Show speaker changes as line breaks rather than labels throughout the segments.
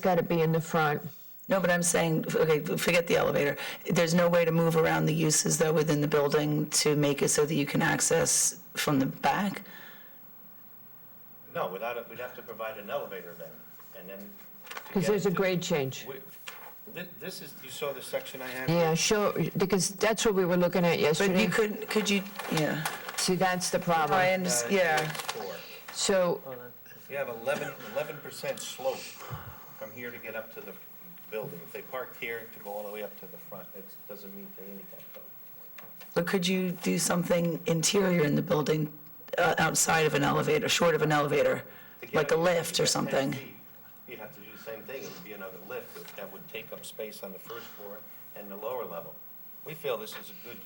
got to be in the front.
No, but I'm saying, okay, forget the elevator. There's no way to move around the uses though within the building to make it so that you can access from the back?
No, without it, we'd have to provide an elevator then, and then. to
Because
get
there's a
to-
grade change.
Wi- thi- This is, you saw the section I had? Uh,
Yeah, sure, because that's what we were looking at
But you
yesterday.
could, could you, yeah.
See, that's the
No, I
problem.
Uh,
understand, yeah.
it's four.
So,
You have 11, 11% slope from here to get up to the building. If they parked here to go all the way up to the front, it doesn't meet the handicap code.
But could you do something interior in the building, uh, outside of an elevator, short of an elevator?
To get
Like a
up-
lift
to
or
get 10
something?
feet, You'd have to do the same thing. It would be another lift that- that would take up space on the first floor and the lower level. We feel this is a good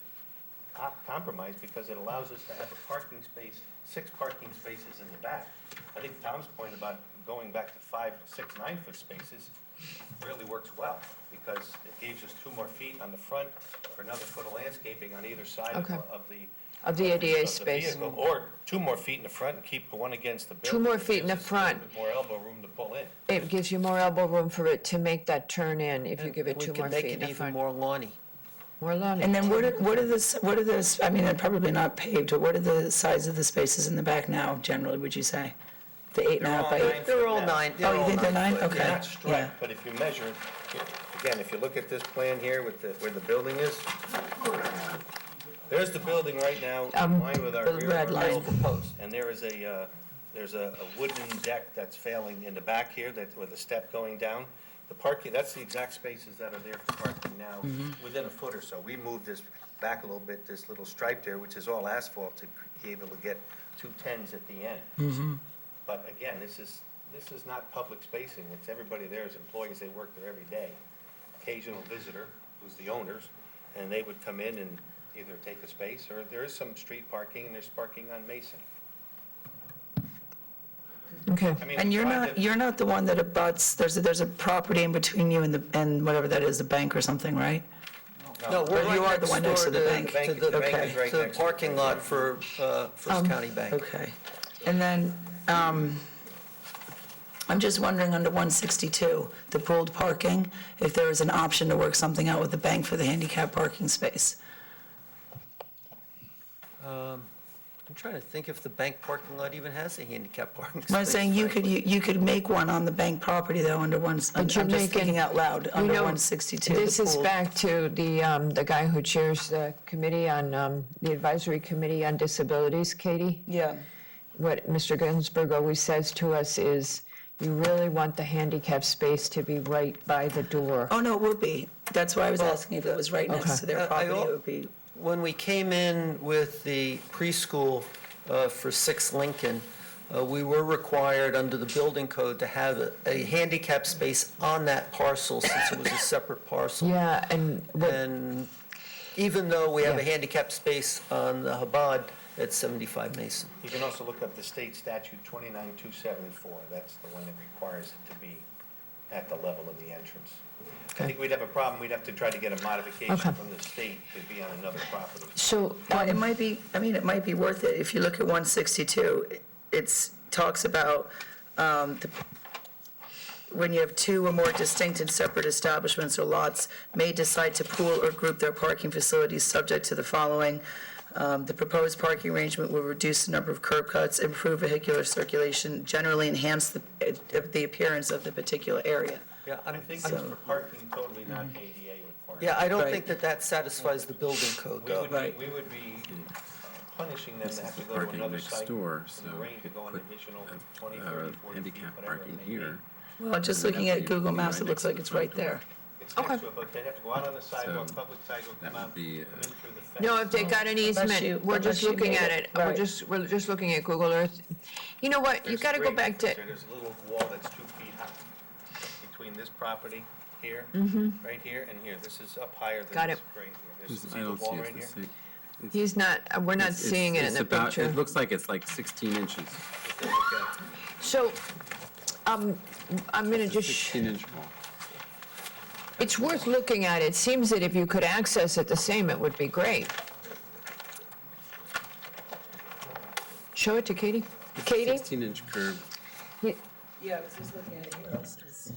op- compromise because it allows us to have a parking space, six parking spaces in the back. I think Tom's point about going back to five, six, nine-foot spaces really works well because it gives us two more feet on the front for another foot of landscaping on either side of
Okay.
of the.
Of the ADA
of the
space.
vehicle, Or two more feet in the front and keep the one against the building.
Two more feet in the
Gives us a little
front.
bit More elbow room to pull in.
it gives you more elbow room for it to make that turn in if you give it
We
two
could
more
make
feet in
it
the
even
front.
more lawny.
More lawn.
And then what are, what are the, s- what are the, s- I mean, they're probably not paved, but what are the size of the spaces in the back now generally, would you say? The eight and a half by
They're all
eight?
nine Yeah.
They're all nine,
Oh,
they're
you
all
think they're
nine.
nine?
But
Okay.
They're not
yeah.
striped, but if you measure, again, if you look at this plan here with the, where the building is, there's the building right now, in
Um,
line with our
the red
rear yard
line.
building post. And there is a, uh, there's a a wooden deck that's failing in the back here, that, with a step going down. The parking, that's the exact spaces that are there for parking now, within a foot or so. We moved this back a little bit, this little stripe there, which is all asphalt, to be able to get two tens at the end. But again, this is, this is not public spacing, it's, everybody there is employees, they work there every day. Occasional visitor, who's the owners, and they would come in and either take a space, or there is some street parking, and there's parking on Mason.
Okay,
I mean,
And you're
five
not,
different-
you're not the one that abuts, there's, a- there's a property in between you and the, and whatever that is, the bank or something, right?
No, we're
But you are
right
the one next
next
to
door
the bank.
The
To
bank- the bank is
the,
right
to the
next to the
parking lot for uh, First
Um,
County Bank.
Okay. And then, um, I'm just wondering, under 162, the pooled parking, if there is an option to work something out with the bank for the handicap parking space?
I'm trying to think if the bank parking lot even has a handicap parking space.
I'm saying you could, you you could make one on the bank property, though, under one, I'm
you're
I'm just
making-
thinking out loud,
you
under
know,
162. the
this is
pooled.
back to the, um, the guy who chairs the committee on, um, the advisory committee on disabilities, Katie.
Yeah.
what Mr. Ginsburg always says to us is, you really want the handicap space to be right by the door.
Oh, no, it would be. That's why I was asking if it was right next
Okay.
to their
Uh, I
property,
al-
it would be.
When we came in with the preschool uh, for Six Lincoln, uh, we were required under the building code to have a- a handicap space on that parcel since it was a separate parcel.
Yeah, and what,
And even though we have a
Yeah.
handicap space on the Habad at 75 Mason.
You can also look up the state statute 29274, that's the one that requires it to be at the level of the entrance. I think we'd have a problem, we'd have to try to get a modification
Okay.
from the state to be on another property.
so,
Well, it
um,
might be, I mean, it might be worth it. If you look at 162, it- it's, talks about um, the- when you have two or more distinct and separate establishments or lots may decide to pool or group their parking facilities subject to the following. Um, The proposed parking arrangement will reduce the number of curb cuts, improve vehicular circulation, generally enhance the eh, the appearance of the particular area.
Yeah,
I
I'm,
think
I'm-
that's for parking totally not ADA required.
yeah, I don't
Right.
think that that satisfies the building code,
We
though.
would, be-
Right.
we would be punishing them
This
to
is
have
the
to go to
parking
another
next
site.
door,
and
so
arrange
we
to
could
go an
put,
additional
uh,
20,
uh,
30, 40 feet,
handicap
whatever it
parking
may be.
here.
Well, just
That
looking at
would
Google
be
Maps,
right
it
next
looks
to
like
the
it's
front
right
door.
there.
It's next to it, but they'd have to go out on the sidewalk, public sidewalk,
that
come out,
would
come in
be, uh,
through the fence.
no, if they got an
you-
easement, we're
unless
just
you
looking
made
at
it-
it, we're
right.
just, we're just looking at Google Earth. You know what, you
There's a
gotta go
grate
back to,
there. There's a little wall that's two feet high between this property here, right here, and here. This is up higher than
Mm-hmm. Got
this
it.
grate here. There's-
This-
See
I
the
don't see
wall
it,
right
it's
here?
the same.
he's not, we're not
It's- it's-
seeing it in
it's
the
about-
picture.
It looks like it's like 16 inches,
If they look at-
So, um, I'm gonna just. sh-
16-inch wall.
It's worth looking at. It seems that if you could access it the same, it would be great. Show it to Katie. Katie?
16-inch curb.
he-
Yeah, I was just looking at it here.